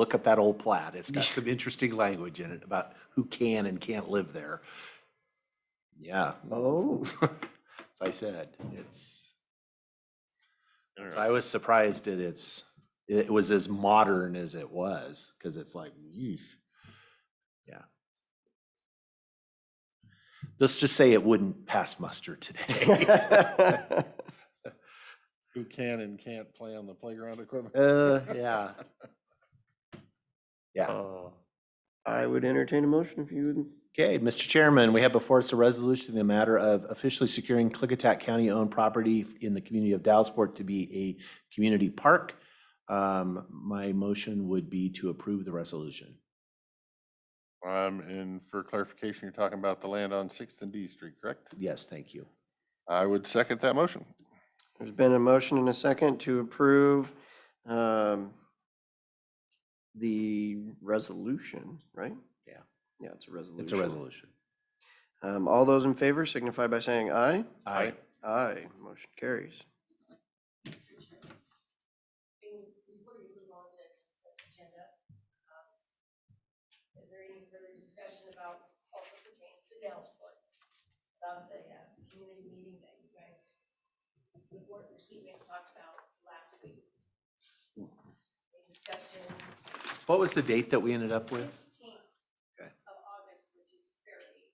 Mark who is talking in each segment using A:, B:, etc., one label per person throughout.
A: look up that old plat. It's got some interesting language in it about who can and can't live there. Yeah,
B: Oh,
A: as I said, it's, so I was surprised at its, it was as modern as it was, because it's like, yeesh. Yeah. Let's just say it wouldn't pass muster today.
C: Who can and can't play on the playground equipment?
A: Uh, yeah. Yeah.
B: I would entertain a motion if you would.
A: Okay, Mr. Chairman, we have before us a resolution in the matter of officially securing Clickitat County-owned property in the community of Dallasport to be a community park. Um, My motion would be to approve the resolution.
C: Um, and for clarification, you're talking about the land on Sixth and D Street, correct?
A: Yes, thank you.
C: I would second that motion.
B: There's been a motion and a second to approve um, the resolution, right?
A: Yeah.
B: Yeah, it's a resolution.
A: It's a resolution.
B: Um, All those in favor signify by saying aye.
A: Aye.
B: Aye, motion carries.
D: And before you move on to consent agenda, um, is there any further discussion about, this also pertains to Dellsport, about the, uh, community meeting that you guys, the board and recipients talked about last week? A discussion.
A: What was the date that we ended up with?
D: Sixteenth
A: Okay.
D: of August, which is fairly,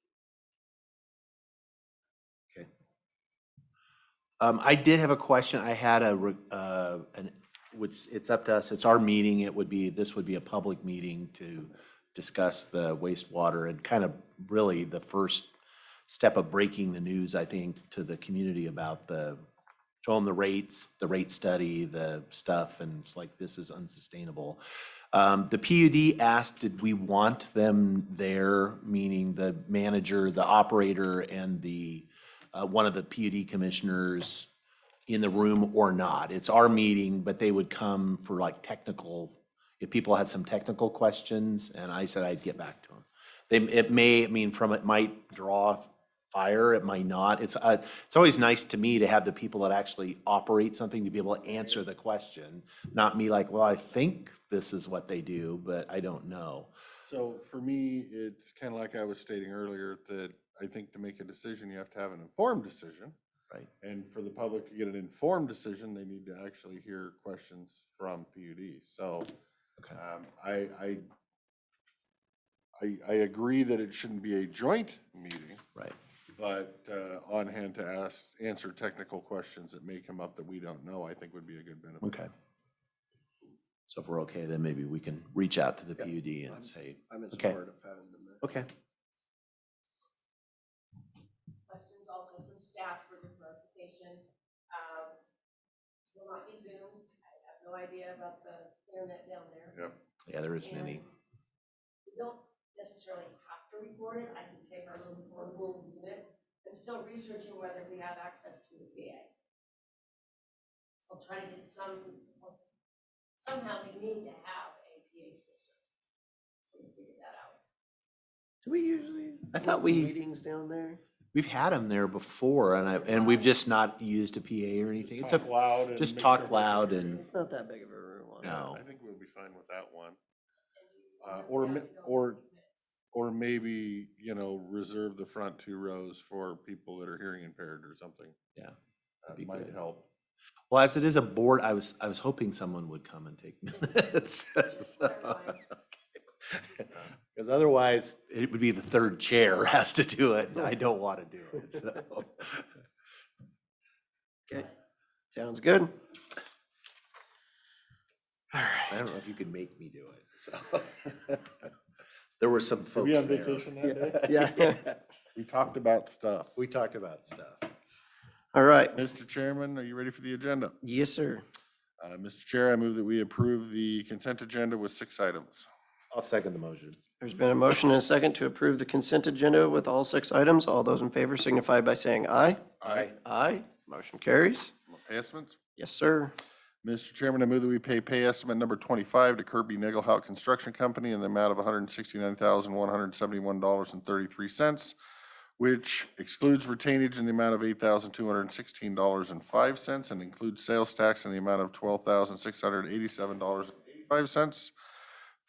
A: Um, I did have a question. I had a, re- uh, an, which, it's up to us, it's our meeting. It would be, this would be a public meeting to discuss the wastewater and kind of really the first step of breaking the news, I think, to the community about the, show them the rates, the rate study, the stuff, and it's like, this is unsustainable. Um, the PUD asked, did we want them there, meaning the manager, the operator, and the, uh, one of the PUD commissioners in the room or not. It's our meeting, but they would come for like technical, if people had some technical questions, and I said I'd get back to them. They, it may, I mean, from, it might draw fire, it might not. It's, uh, it's always nice to me to have the people that actually operate something to be able to answer the question, not me like, well, I think this is what they do, but I don't know.
C: So for me, it's kind of like I was stating earlier, that I think to make a decision, you have to have an informed decision.
A: Right.
C: And for the public to get an informed decision, they need to actually hear questions from PUD. So
A: Okay.
C: um, I, I, I, I agree that it shouldn't be a joint meeting,
A: Right.
C: but uh, on hand to ask, answer technical questions that may come up that we don't know, I think would be a good benefit.
A: Okay. So if we're okay, then maybe we can reach out to the PUD
B: I'm-
A: and say,
B: I'm in
A: Okay.
B: support of having them. there.
A: okay.
D: questions also from staff for the clarification. Um, Will not be zoomed, I have no idea about the internet down there.
C: Yep.
A: Yeah, there isn't any.
D: And We don't necessarily have to record it, I can take our little portable unit, I'm still researching whether we have access to the VA. So I'll try to get some, somehow we need to have a PA system. So we figure that out.
B: Do we usually?
A: I thought
B: hold
A: we-
B: Meetings down there?
A: We've had them there before and I, and we've just not used a PA or anything. It's a,
C: loud.
A: just make sure talk everybody loud can hear and-
B: It's not that big of a room. I don't
A: No.
C: I think we'll be fine with that one.
D: And you-
C: Uh,
D: and
C: or
D: staff
C: mi-
D: can go in
C: or-
D: two minutes.
C: Or maybe, you know, reserve the front two rows for people that are hearing impaired or something.
A: Yeah,
C: That
A: be
C: might
A: good.
C: help.
A: well, as it is a board, I was, I was hoping someone would come and take minutes.
D: Just
A: so-
D: clarifying.
A: Because otherwise, it would be the third chair has to do it and I don't want to do it, so.
B: know. Okay, sounds good. All right.
A: I don't know if you could make me do it, so. There were some folks there.
B: Yeah.
C: We talked about stuff.
A: We talked about stuff.
B: All right.
C: Mr. Chairman, are you ready for the agenda?
B: Yes, sir.
C: Uh, Mr. Chair, I move that we approve the consent agenda with six items.
A: I'll second the motion.
B: There's been a motion and a second to approve the consent agenda with all six items. All those in favor signify by saying aye.
C: Aye.
B: Aye. Motion carries.
C: Estimates?
B: Yes, sir.
C: Mr. Chairman, I move that we pay pay estimate number 25 to Kirby Nagelhout Construction Company in the amount of $169,171.33, which excludes retainage in the amount of $8,216.05 and includes sales tax in the amount of $12,687.85.